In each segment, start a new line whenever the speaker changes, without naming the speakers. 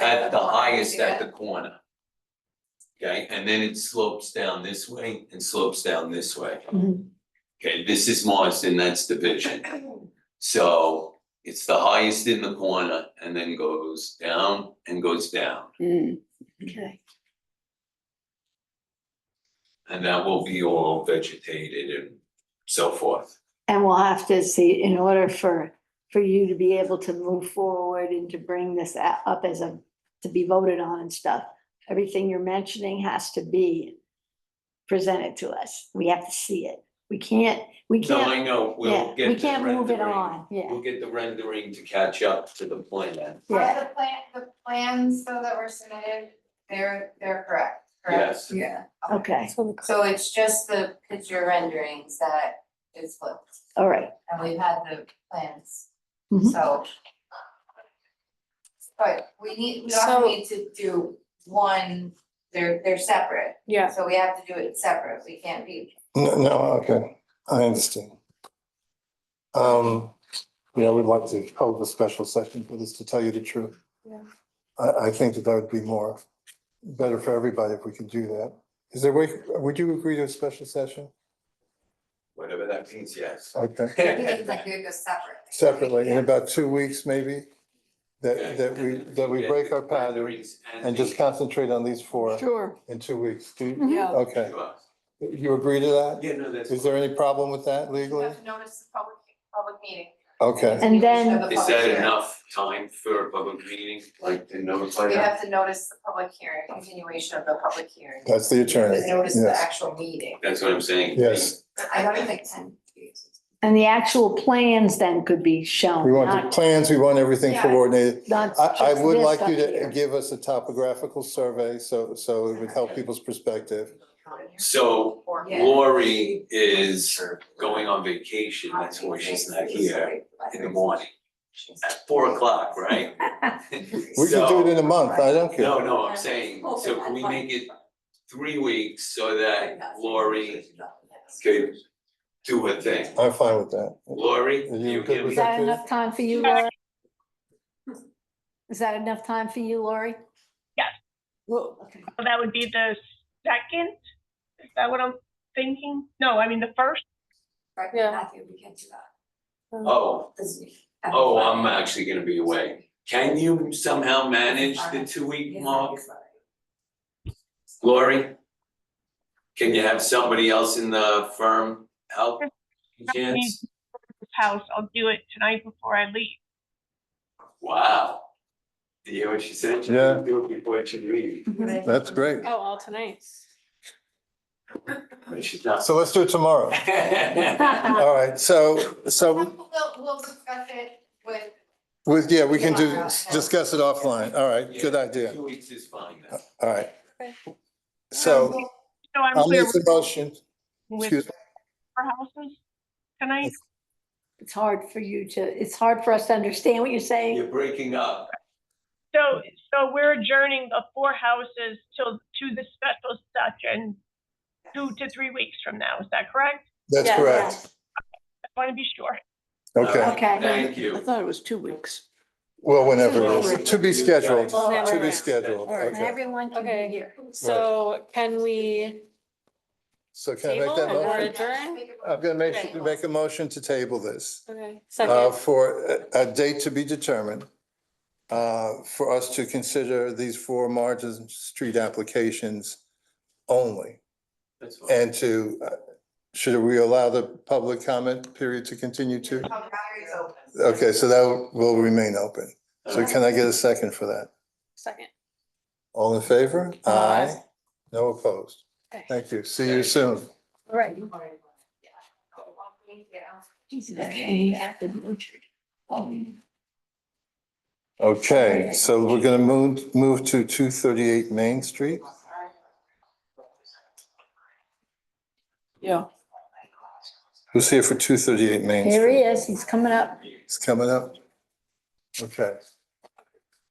at the highest at the corner. Okay, and then it slopes down this way and slopes down this way.
Mhm.
Okay, this is Marsden, that's Division. So it's the highest in the corner and then goes down and goes down.
Mm, okay,
And that will be all vegetated and so forth.
and we'll have to see, in order for, for you to be able to move forward and to bring this a- up as a, to be voted on and stuff, everything you're mentioning has to be presented to us. We have to see it. We can't, we
No,
can't,
I know,
yeah,
we'll get
we
the
can't move it
rendering.
on, yeah,
We'll get the rendering to catch up to the plan.
Are
yeah.
the plan, the plans though that were submitted, they're, they're correct, correct?
Yes,
Yeah.
Okay,
So it's just the picture renderings that is flipped,
all right.
and we've had the plans,
Mhm.
so. But we need, we
So-
also need to do one, they're, they're separate,
Yeah,
so we have to do it separate, we can't be.
No, no, okay, I understand. Um, you know, we'd like to hold a special session for this, to tell you the truth.
Yeah.
I, I think that that would be more, better for everybody if we could do that. Is there way, would you agree to a special session?
whatever that means, yes.
Okay,
I think it's like we go separate.
separately, in about two weeks maybe?
Okay.
That, that we, that we
Yeah,
break our
the
pattern
renderings
and just
the-
concentrate on these four
Sure.
in two weeks. Do, you-
yeah.
okay, you agree to that?
Yeah, no, that's.
Is there any problem with that
We
legally?
have to notice the public, public meeting.
Okay,
And then-
Of the
Is
public
that
hearing.
enough time for a public meeting, like to notify
We
that?
have to notice the public hearing, continuation of the public hearing.
that's the attorney,
To notice the
yes,
actual meeting.
That's what I'm saying.
yes.
I don't think ten.
And the actual plans then could be
We
shown,
want the
not,
plans, we want everything
Yeah.
coordinated.
not
I, I
just
would
this
like
up
you to
here.
give us a topographical survey, so, so it would help people's perspective.
So
Yeah.
Lori is going on vacation, that's why she's not here in the morning, at four o'clock, right?
We can do it in a month, I don't care.
No, no, I'm saying, so can we make it three weeks so that Lori could do her thing?
I'm fine with that.
Lori,
Are you
you
good
hear me?
with
Is that
Executive.
enough time for you, Lori? Is that enough time for you, Lori?
Yes.
Well, okay.
So that would be the second? Is that what I'm thinking? No, I mean, the first?
Yeah.
Matthew, we can do that.
Oh,
This week.
oh, I'm actually gonna be away. Can you somehow manage the two-week
Yeah,
mark,
sorry.
Lori? Can you have somebody else in the firm help? Chance?
House, I'll do it tonight before I leave.
Wow. Do you hear what she said? She
Yeah.
didn't Do it before she leaves,
That's great.
Oh, all tonight.
but she's not.
So let's do it tomorrow. All right, so, so,
We'll, we'll discuss it with,
with, yeah, we can do, discuss it offline. All right, good idea.
Two weeks is fine then.
All right. So
So I'm
I'll
clear
make
with
the motion, excuse
with
me.
our houses tonight?
It's hard for you to, it's hard for us to understand what you're saying.
You're breaking up.
So, so we're adjourning the four houses till, to the special session two to three weeks from now, is that correct?
That's
Yeah.
correct.
I want to be sure.
Okay,
Okay.
Uh, Thank you.
thought it was two weeks.
well, whenever it is, to be scheduled, to
Whenever.
be scheduled,
All right.
And
okay.
everyone can
Okay.
be here.
So can we,
So can I make
Table
that
and we're
motion?
adjourned?
I'm gonna make, make a motion to table this,
okay,
uh,
second,
for a- a date to be determined. Uh, for us to consider these four margin street applications only.
That's fine.
And to, uh, should we allow the public comment period to continue too?
public hearing's open.
Okay, so that will remain open. So
Okay.
can I get a second for that?
second.
All in favor?
Aye.
No opposed.
Okay.
Thank you. See you soon.
All Right.
Yeah. Yeah.
Okay, so we're gonna move, move to two thirty-eight Main Street.
Yeah.
Who's here for two thirty-eight Main
Here he
Street?
is, he's coming up.
It's coming up. Okay.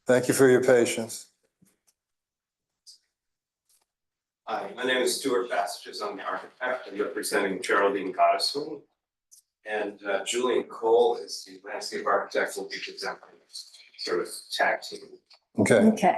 Thank you for your patience.
Hi, my name is Stuart Bastages. I'm the architect. I'm representing Geraldine Gottesman. And uh, Julian Cole is the landscape architect, will be presenting sort of tag team.
Okay.
Okay.